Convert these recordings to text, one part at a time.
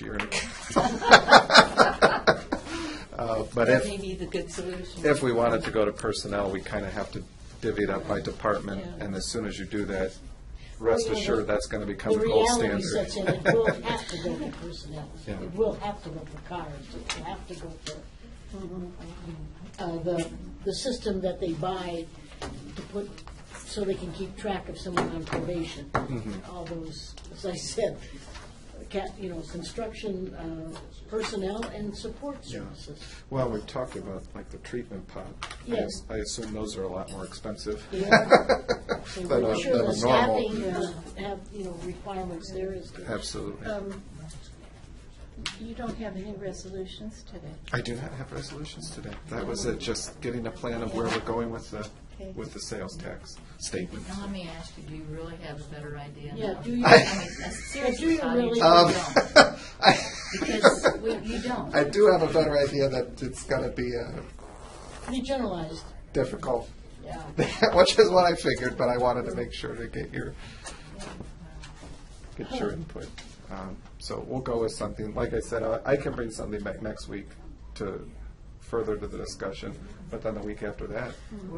you're gonna. Uh, But if. That may be the good solution. if we wanted to go to personnel, we kind of have to divvy it up by department, Yeah. and as soon as you do that, rest Well, you know, assured, the- that's going to become the gold standard. The reality is that it will have to go to personnel. Yeah. It will have to go for cars, it will have to go for, uh, the, the system that they buy to put, so they can keep track of someone on probation. Mm-hmm. All those, as I said, cat, you know, construction, uh, personnel and support services. Well, we've talked about like the treatment pod. I- Yes. I assume those are a lot more expensive. Yeah. So Than we're a- sure than the a normal. staffing uh, have, you know, requirements there is. good. Absolutely. Um, You don't have any resolutions today. I do not have resolutions today. That was it, just getting a plan of where we're going with the, Okay. with the sales tax statement. Now, let me ask you, do you really have a better idea? Yeah, now? do you- I mean, uh, Seriously, you Claudia, really- you Um, don't, because we- you don't. I do have a better idea that it's going to be uh, Pretty generalized. difficult, Yeah. which is what I figured, but I wanted to make sure to get your, get your input. Um, So we'll go with something, like I said, I I can bring something back next week to, further to the discussion, but then the week after that,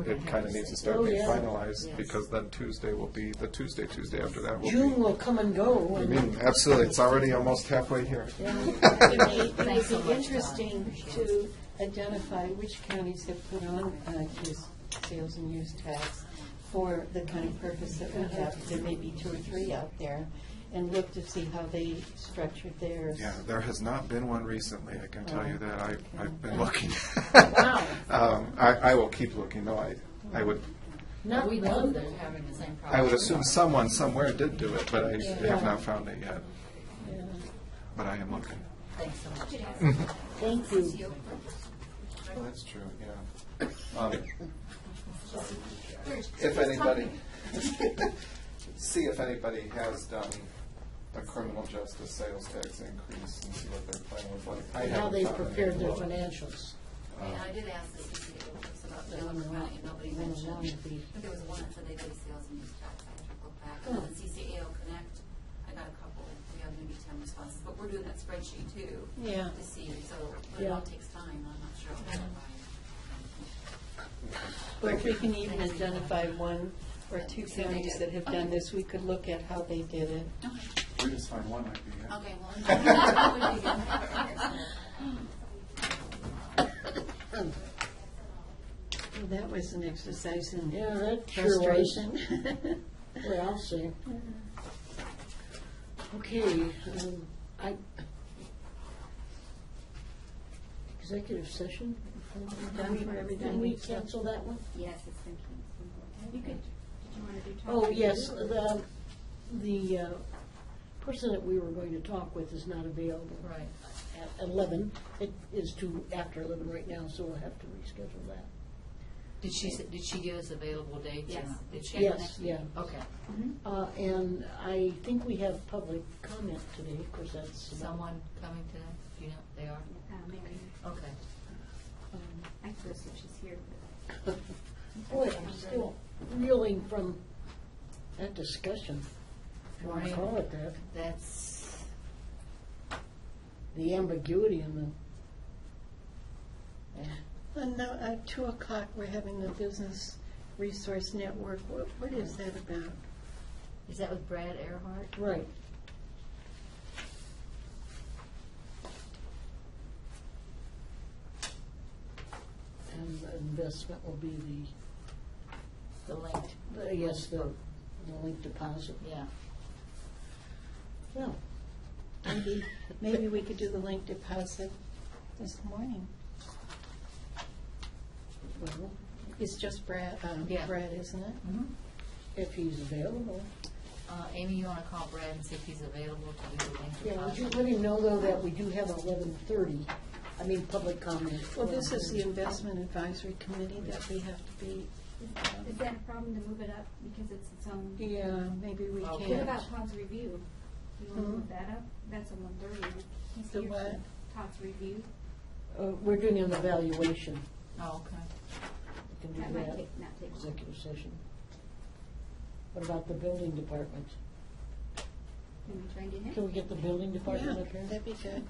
it kind of needs to start Oh, being yeah. finalized, because then Tuesday will be, the Tuesday, Tuesday after that will June be. will come and go, I and mean, absolutely, it's already almost halfway here. It may- it Thanks so would be much, Don. interesting to identify which counties have put on uh, use, sales and use tax for the kind of purpose that we have. There may be two or three out there, and look to see how they structured theirs. Yeah, there has not been one recently, I can tell you that, I, I've been looking. Wow. Um, I, I will keep looking, though, I, I would, not We know one. they're having the same problem. I would assume someone somewhere did do it, but I have not found it yet. But I am looking. Thanks so much. Thank you. Well, Oh, that's true, yeah. Um, If anybody, see if anybody has done a criminal justice sales tax increase and see what their plan was like. I And How haven't they found any. prepared their financials. And I did ask the CPA folks about Delaware County, and nobody mentioned, but there was one that said they did sales and use tax, I took it back. And the CCAO Connect, I got a couple, we have maybe ten responses, but we're doing that spreadsheet too. Yeah. To see, so, but it all takes time, I'm not sure. But if we can even identify one or two counties that have done this, we could look at how they did it. We just find one might be it. Okay, well. that would be good. Well, That was an exercise in Yeah, that sure was. frustration. Well, I'll see. Mm-hmm. Okay, um, I, executive session? Done for everything. Can we cancel that one? Yes, it's been canceled. You could, did you want to do? Oh, topic? yes, the, the uh, person that we were going to talk with is not available. Right. at eleven. It is to after eleven right now, so we'll have to reschedule that. Did she, s- did she give us available dates? Yes. Did she? Yes, yeah. Okay. Uh, and I think we have public comment today, of course, that's. about- Someone coming today? Do you know, they are? Uh, Mary, Okay. um, I suppose if she's here, but Boy, Oh, I'm still reeling from that discussion, if you want to Right. call it that, That's, the ambiguity in the. And now, at two o'clock, we're having the Business Resource Network. What, what is that about? is that with Brad Earhart? Right. And investment will be The linked, the, the- yes, the, the link deposit. yeah. Well, Maybe, maybe we could do the link deposit this morning. well, It's just Brad, um, Yeah. Brad, isn't it? Mhm. if he's available. Uh, Amy, you want to call Brad and see if he's available to do the linked Yeah, would you deposit? let him know though that we do have eleven thirty, I mean, public comment. Well, um, this is the Investment Advisory Committee that we have to be, is that a problem to move it up because it's its own? yeah, maybe we Okay. What can't. about Todd's review? Do you want to move that up? That's a one thirty. He's The here for what? Todd's review. Uh, we're doing an evaluation, Oh, okay. we can That do might that, take, not take. executive session. What about the building department? maybe try and get him. Can we get the building department up here? That'd be good.